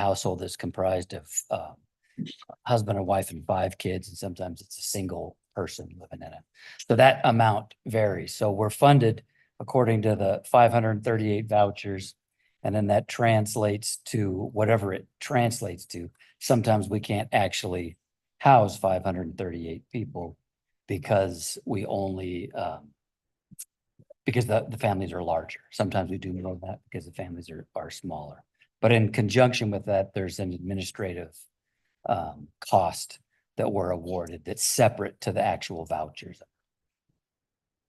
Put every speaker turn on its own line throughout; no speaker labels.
household that's comprised of uh, husband and wife and five kids, and sometimes it's a single person living in it. So that amount varies. So we're funded according to the five hundred and thirty-eight vouchers. And then that translates to whatever it translates to. Sometimes we can't actually house five hundred and thirty-eight people because we only um, because the, the families are larger. Sometimes we do more of that because the families are, are smaller. But in conjunction with that, there's an administrative um, cost that we're awarded that's separate to the actual vouchers.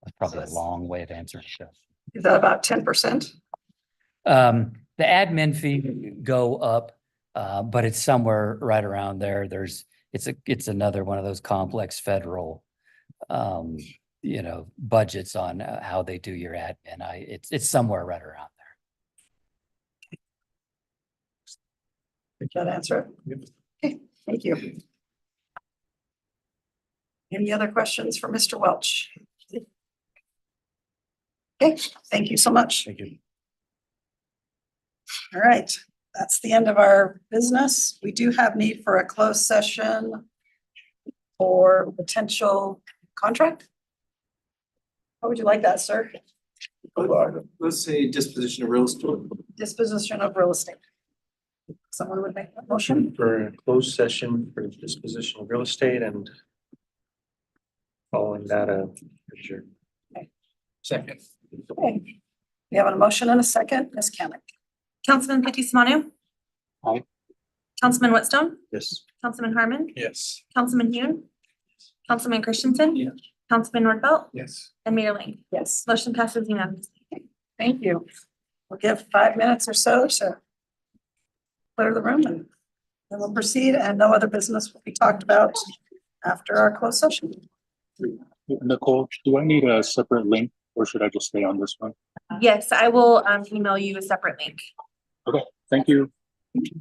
That's probably a
that's-
long way of answering this.
Is that about ten percent?
Um, the admin fee go up, uh, but it's somewhere right around there. There's, it's a, it's another one of those complex federal um, you know, budgets on uh, how they do your admin. I, it's, it's somewhere right around there.
Did that answer it? Okay, thank you. Any other questions for Mr. Welch? Okay, thank you so much.
Thank you.
All right, that's the end of our business. We do have need for a closed session for potential contract. How would you like that, sir?
Let's say disposition of real estate.
Disposition of real estate. Someone would make that motion?
For a closed session for disposition of real estate and following that, uh, sure.
Second.
Okay. We have a motion and a second, Ms. Kamic.
Councilman Fitzie Umanu.
Aye.
Councilman Whitstone,
Yes.
Councilman Harmon,
Yes.
Councilman Hune, Councilman Christensen.
Yes.
Councilman Nordfelt
Yes.
and Mayor Ling.
Yes.
Motion passes unanimously.
Thank you. We'll give five minutes or so to clear the room and then we'll proceed and no other business will be talked about after our closed session.
Nicole, do I need a separate link or should I just stay on this one?
Yes, I will um email you a separate link.
Thank you.